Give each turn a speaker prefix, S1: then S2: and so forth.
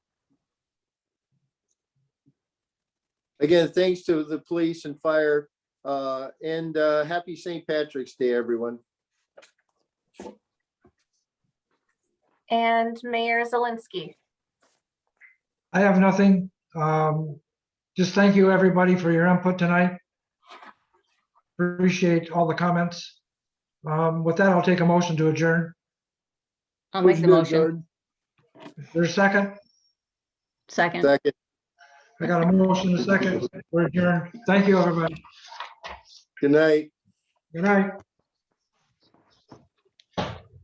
S1: Again, thanks to the police and fire, uh, and, uh, happy St. Patrick's Day, everyone.
S2: And Mayor Zelinski.
S3: I have nothing. Um, Just thank you, everybody, for your input tonight. Appreciate all the comments. Um, With that, I'll take a motion to adjourn.
S4: I'll make the motion.
S3: There's a second?
S4: Second.
S1: Second,
S3: I got a motion, a second. We're adjourned. Thank you, everybody.
S1: good night.
S3: Good night.